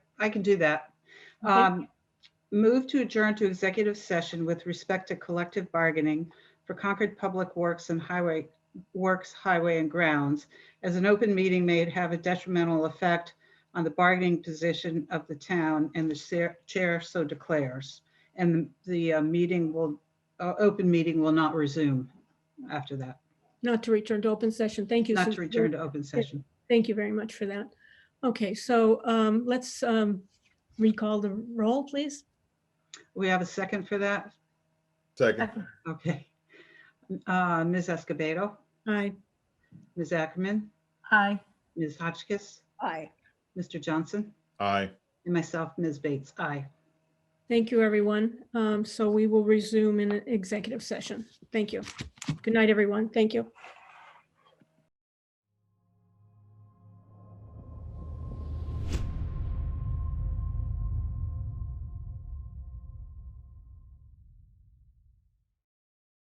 I can do that. Okay. Um, Move to adjourn to executive session with respect to collective bargaining for Concord Public Works and Highway, Works Highway and Grounds, as an open meeting may have a detrimental effect on the bargaining position of the town, and the chair- chair so declares. And the uh, meeting will, uh, open meeting will not resume after that, Not to return to open session. Thank you. not to Susan. return to open session. Thank you very much for that. Okay, so um, let's um, recall the roll, please. We have a second for that? Second, Okay. Uh, Ms. Escobedo, Aye. Ms. Ackerman, Aye. Ms. Hotchkiss, Aye. Mr. Johnson, aye. and myself, Ms. Bates. Aye. Thank you, everyone. Um, So we will resume in an executive session. Thank you. Good night, everyone. Thank you.